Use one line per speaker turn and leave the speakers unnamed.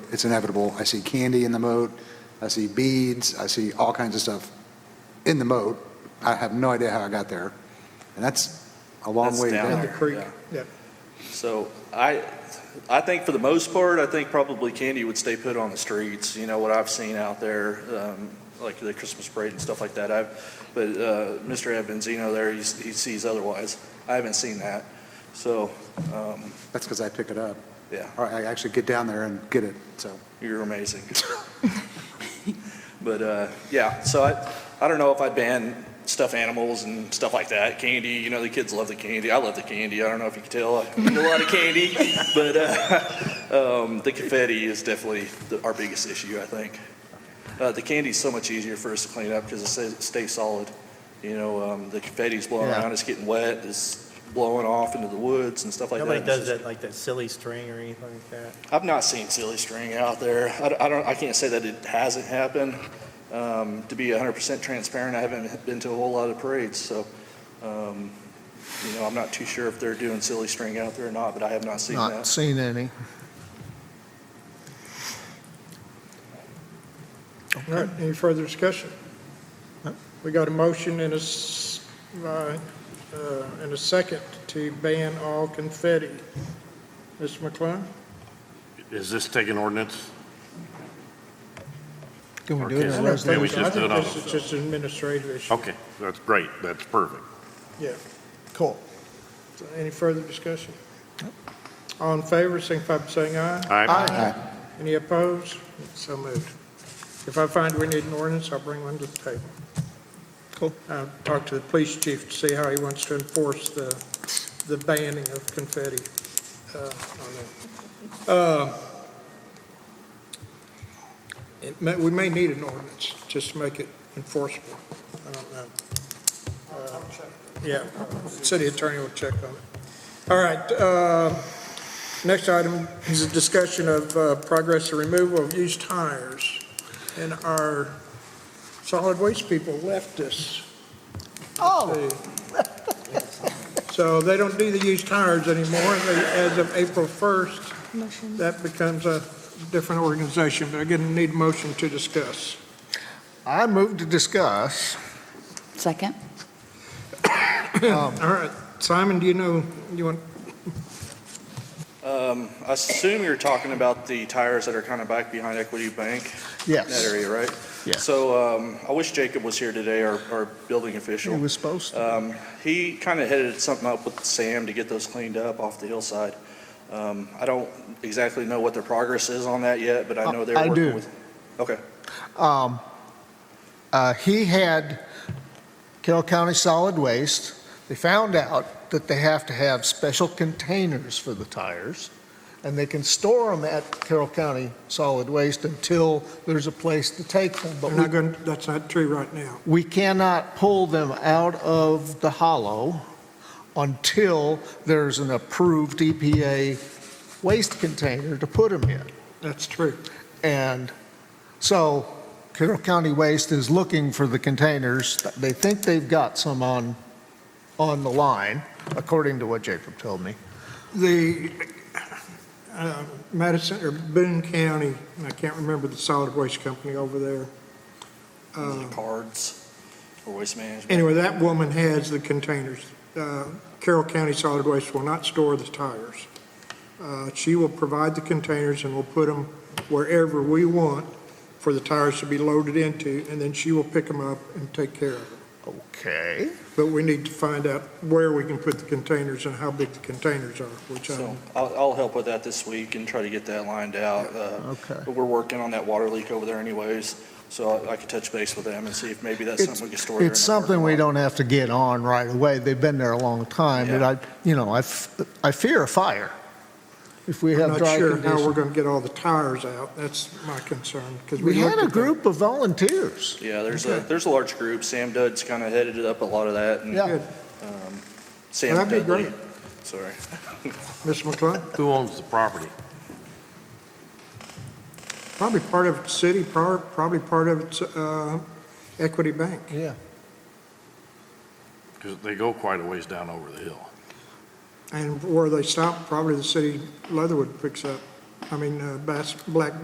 it's inevitable. I see candy in the moat, I see beads, I see all kinds of stuff in the moat. I have no idea how I got there, and that's a long
That's
way
down
down
there.
there.
Creek,
Yeah.
yeah.
So I, I think for the most part, I think probably candy would stay put on the streets, you know, what I've seen out there, um, like the Christmas parade and stuff like that. I've, but, uh, Mr. Ed Benzino there, he's, he sees otherwise. I haven't seen that. So, um,
That's because I pick it up,
yeah,
or I actually get down there and get it, so.
you're amazing. But, uh, yeah, so I, I don't know if I'd ban stuffed animals and stuff like that, candy, you know, the kids love the candy, I love the candy, I don't know if you can tell, I eat a lot of candy, but, uh, um, the confetti is definitely the- our biggest issue, I think. Uh, the candy's so much easier for us to clean up because it stays, stays solid, you know, um, the confetti's blowing
Yeah.
around, it's getting wet, it's blowing off into the woods and stuff like that.
Nobody does that, like that silly string or anything like that.
I've not seen silly string out there. I don't- I don't, I can't say that it hasn't happened. Um, To be 100% transparent, I haven't been to a whole lot of parades, so, um, you know, I'm not too sure if they're doing silly string out there or not, but I have not seen
Not
that.
seen any.
All right, any further discussion? We got a motion and a, s- uh, uh, and a second to ban all confetti. Mr. McClung?
Is this taking ordinance?
Can
Or
we do it in
can-
a
Maybe we
resolution?
just do it
I
on-
think this is just an administrative issue.
Okay, that's great, that's perfect.
Yeah.
Cool.
So Any further discussion? All in favor, signify by saying aye.
Aye.
Any opposed? So moved. If I find we need an ordinance, I'll bring one to the table.
Cool.
I'll talk to the police chief to see how he wants to enforce the, the banning of confetti uh, on there. Uh, it may- We may need an ordinance just to make it enforceable. I don't know. Uh, Yeah, city attorney will check on it. All right, uh, Next item is a discussion of uh, progress of removal of used tires. And our solid waste people left us. Oh. So they don't do the used tires anymore. They- As of April 1st,
Motion.
that becomes a different organization. But again, need a motion to discuss.
I move to discuss.
Second.
All right, Simon, do you know, you want,
Um, I assume you're talking about the tires that are kind of back behind Equity Bank, that
Yes.
area, right?
Yeah.
So um, I wish Jacob was here today, our, our building official.
It was supposed to.
Um, he kind of headed something up with Sam to get those cleaned up off the hillside. Um, I don't exactly know what their progress is on that yet, but I know they're
I
working
do.
with. Okay,
Um, uh, He had Carroll County Solid Waste, they found out that they have to have special containers for the tires, and they can store them at Carroll County Solid Waste until there's a place to take them. But
I'm
we
not going, that's not true right now.
we cannot pull them out of the hollow until there's an approved EPA waste container to put them in.
That's true.
And so Carroll County Waste is looking for the containers. They think they've got some on, on the line, according to what Jacob told me.
The uh, Madison, or Boone County, and I can't remember the solid waste company over there. Uh,
cards or waste management.
Anyway, that woman has the containers. Uh, Carroll County Solid Waste will not store the tires. Uh, She will provide the containers and will put them wherever we want for the tires to be loaded into, and then she will pick them up and take care of them.
Okay.
But we need to find out where we can put the containers and how big the containers are, which I
So I'll, I'll help with that this week and try to get that lined out. Uh,
Okay.
But we're working on that water leak over there anyways, so I I could touch base with them and see if maybe that's something we could store. there in
It's
the parking
something we
lot.
don't have to get on right away. They've been there a long time, but
Yeah.
I, you know, I, f- I fear a fire if we have
I'm not
dry
sure how we're
conditions.
going to get all the tires out. That's my concern, because we
We
looked
had
at
a
that.
group of volunteers.
Yeah, there's a,
Okay.
there's a large group. Sam Dud's kind of headed up a lot of that and
Yeah.
Sam
That'd be
Dudley.
great.
Sorry.
Mr. McClung,
Who owns the property?
probably part of it's city, par- probably part of it's uh, Equity Bank.
Yeah.
Because they go quite a ways down over the hill.
And where they stop, probably the city Leatherwood picks up, I mean, uh, Bass, Black